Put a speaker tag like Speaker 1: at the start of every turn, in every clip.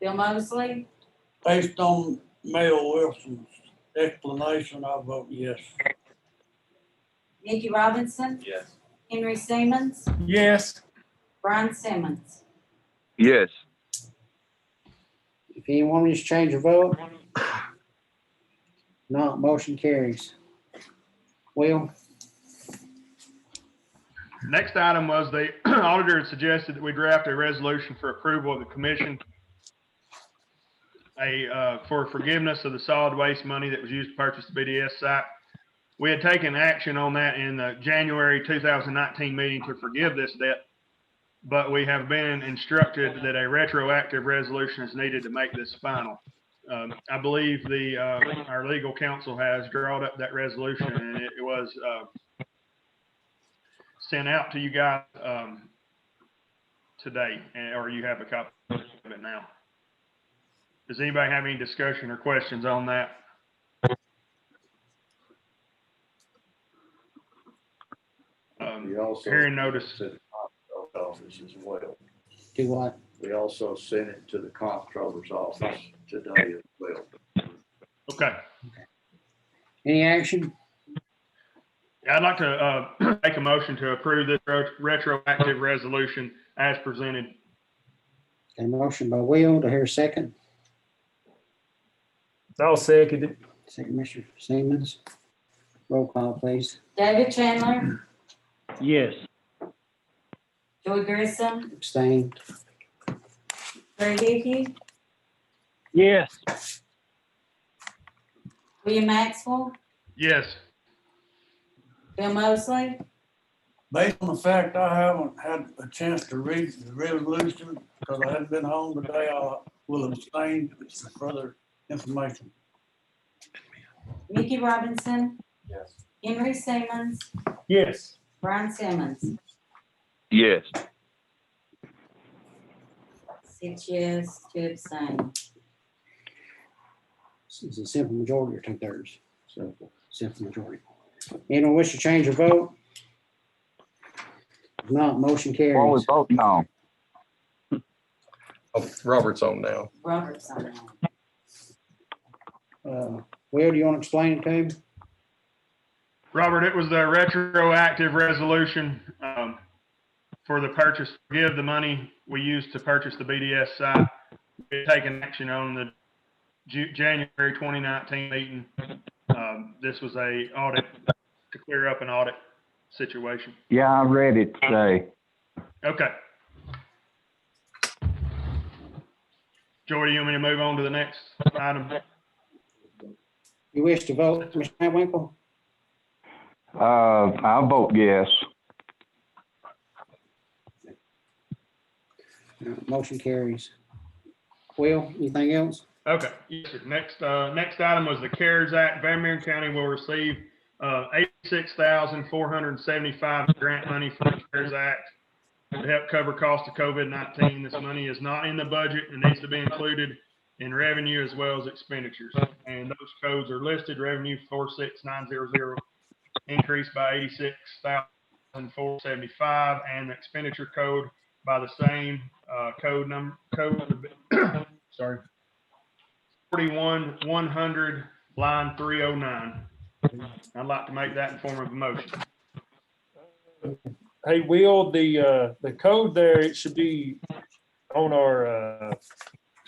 Speaker 1: Bill Mosley,
Speaker 2: Based on Mayor Wilson's explanation, I vote yes.
Speaker 1: Mickey Robinson,
Speaker 3: Yes.
Speaker 1: Henry Simmons,
Speaker 4: yes,
Speaker 1: Brian Simmons.
Speaker 5: yes,
Speaker 6: If anyone wants to change your vote? Not, motion carries. Will,
Speaker 4: next item was the auditor had suggested that we draft a resolution for approval of the commission. A, uh, for forgiveness of the solid waste money that was used to purchase the BDS site. We had taken action on that in the January two thousand nineteen meeting to forgive this debt. But we have been instructed that a retroactive resolution is needed to make this final. Um, I believe the, uh, our legal counsel has drawn up that resolution and it was, uh, sent out to you guys, um, today, and- or you have a copy of it now. Does anybody have any discussion or questions on that? Um,
Speaker 3: We also
Speaker 4: Hearing notice,
Speaker 3: sent it to the office as well.
Speaker 6: do what?
Speaker 3: We also sent it to the comptroller's office today as well.
Speaker 4: okay.
Speaker 6: Any action?
Speaker 4: I'd like to, uh, make a motion to approve this ret- retroactive resolution as presented.
Speaker 6: A motion by Will, to hear a second?
Speaker 7: I'll second it.
Speaker 6: Second, Mr. Simmons. Roll call, please.
Speaker 1: David Chandler,
Speaker 7: Yes.
Speaker 1: Joey Grissom,
Speaker 6: Abstain.
Speaker 1: Greg Hickey,
Speaker 7: Yes.
Speaker 1: William Maxwell,
Speaker 4: Yes,
Speaker 1: Bill Mosley,
Speaker 2: Based on the fact I haven't had a chance to read the resolution because I hadn't been home today, I will abstain for further information.
Speaker 1: Mickey Robinson,
Speaker 3: Yes.
Speaker 1: Henry Simmons,
Speaker 7: Yes.
Speaker 1: Brian Simmons.
Speaker 5: yes,
Speaker 1: Six yes, two abstain.
Speaker 6: It's a simple majority or two thirds,
Speaker 3: Simple.
Speaker 6: simple majority. Anyone wish to change your vote? If Not, motion
Speaker 5: all
Speaker 6: carries.
Speaker 5: we vote no.
Speaker 8: Oh, Robert's on now.
Speaker 1: Roberts on that.
Speaker 6: Uh, Will, do you want to explain it to him?
Speaker 4: Robert, it was the retroactive resolution um, for the purchase, give the money we used to purchase the BDS site. We had taken action on the Ju- January 2019 meeting. Um, This was a audit, to clear up an audit situation.
Speaker 5: Yeah, I read it today.
Speaker 4: Okay. Joy, do you want me to move on to the next item?
Speaker 6: You wish to vote, Mr. Winkle?
Speaker 5: Uh, I vote yes.
Speaker 6: Motion carries. Will, anything else?
Speaker 4: Okay, yes, sir. Next, uh, next item was the CARES Act. Van Buren County will receive, uh, eighty-six thousand, four hundred and seventy-five grant money from the CARES Act to help cover costs of COVID-nineteen. This money is not in the budget and needs to be included in revenue as well as expenditures. And those codes are listed, revenue four-six-nine-zero-zero, increased by eighty-six thousand, four seventy-five, and the expenditure code by the same, uh, code number, code, sorry, forty-one, one hundred, line three oh nine. I'd like to make that in form of a motion.
Speaker 7: Hey, Will, the, uh, the code there, it should be on our, uh,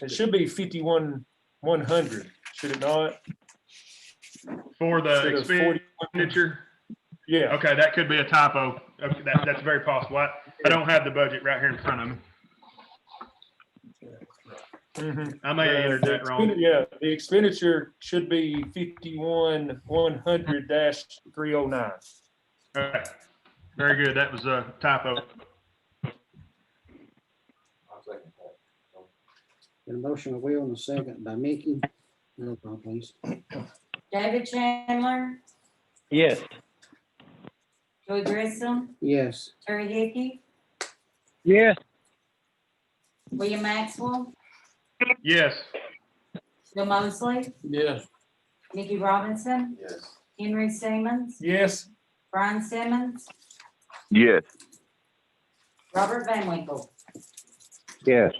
Speaker 7: it should be fifty-one, one hundred, should it
Speaker 4: Uh,
Speaker 7: not?
Speaker 4: For the
Speaker 7: Instead of 41
Speaker 4: expenditure,
Speaker 7: Yeah,
Speaker 4: okay, that could be a typo. Okay, That, that's very possible. I, I don't have the budget right here in front of me.
Speaker 7: mhm.
Speaker 4: I may have entered
Speaker 7: The- the
Speaker 4: that wrong.
Speaker 7: expendi- Yeah, the expenditure should be fifty-one, one hundred dash three oh nine.
Speaker 4: Okay. Very good. That was a typo.
Speaker 6: Got a motion by Will and a second by Mickey. Roll call, please.
Speaker 1: David Chandler,
Speaker 7: Yes.
Speaker 1: Joey Grissom,
Speaker 6: Yes,
Speaker 1: Terry Hickey,
Speaker 7: Yes.
Speaker 1: William Maxwell,
Speaker 4: Yes,
Speaker 1: Bill Mosley,
Speaker 2: Yes,
Speaker 1: Mickey Robinson,
Speaker 3: Yes.
Speaker 1: Henry Simmons,
Speaker 7: Yes,
Speaker 1: Brian Simmons,
Speaker 5: Yes,
Speaker 1: Robert Van Winkle.
Speaker 5: yes,